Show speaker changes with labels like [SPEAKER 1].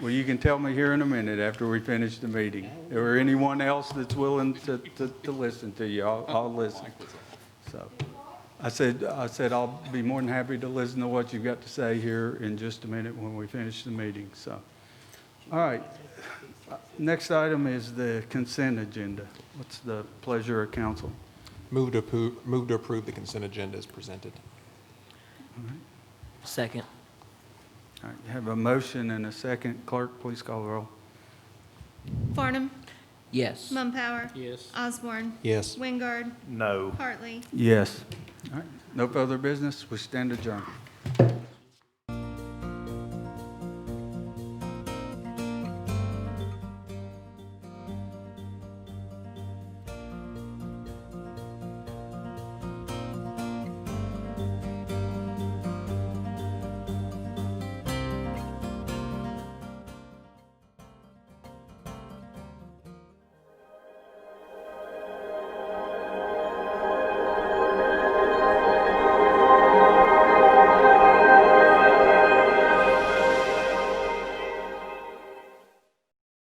[SPEAKER 1] Well, you can tell me here in a minute after we finish the meeting. Or anyone else that's willing to, to, to listen to you, I'll, I'll listen. So, I said, I said I'll be more than happy to listen to what you've got to say here in just a minute when we finish the meeting, so. All right. Uh, Next item is the consent agenda. What's the pleasure of council?
[SPEAKER 2] Move to approve, move to approve the consent agenda as presented.
[SPEAKER 3] Second.
[SPEAKER 1] All right, you have a motion and a second. Clerk, please call the roll.
[SPEAKER 4] Farnum.
[SPEAKER 3] Yes.
[SPEAKER 4] Mumpower.
[SPEAKER 3] Yes.
[SPEAKER 4] Osborne.
[SPEAKER 2] Yes.
[SPEAKER 4] Wingard.
[SPEAKER 5] No.
[SPEAKER 4] Hartley.
[SPEAKER 1] Yes. All right, no further business, we stand adjourned.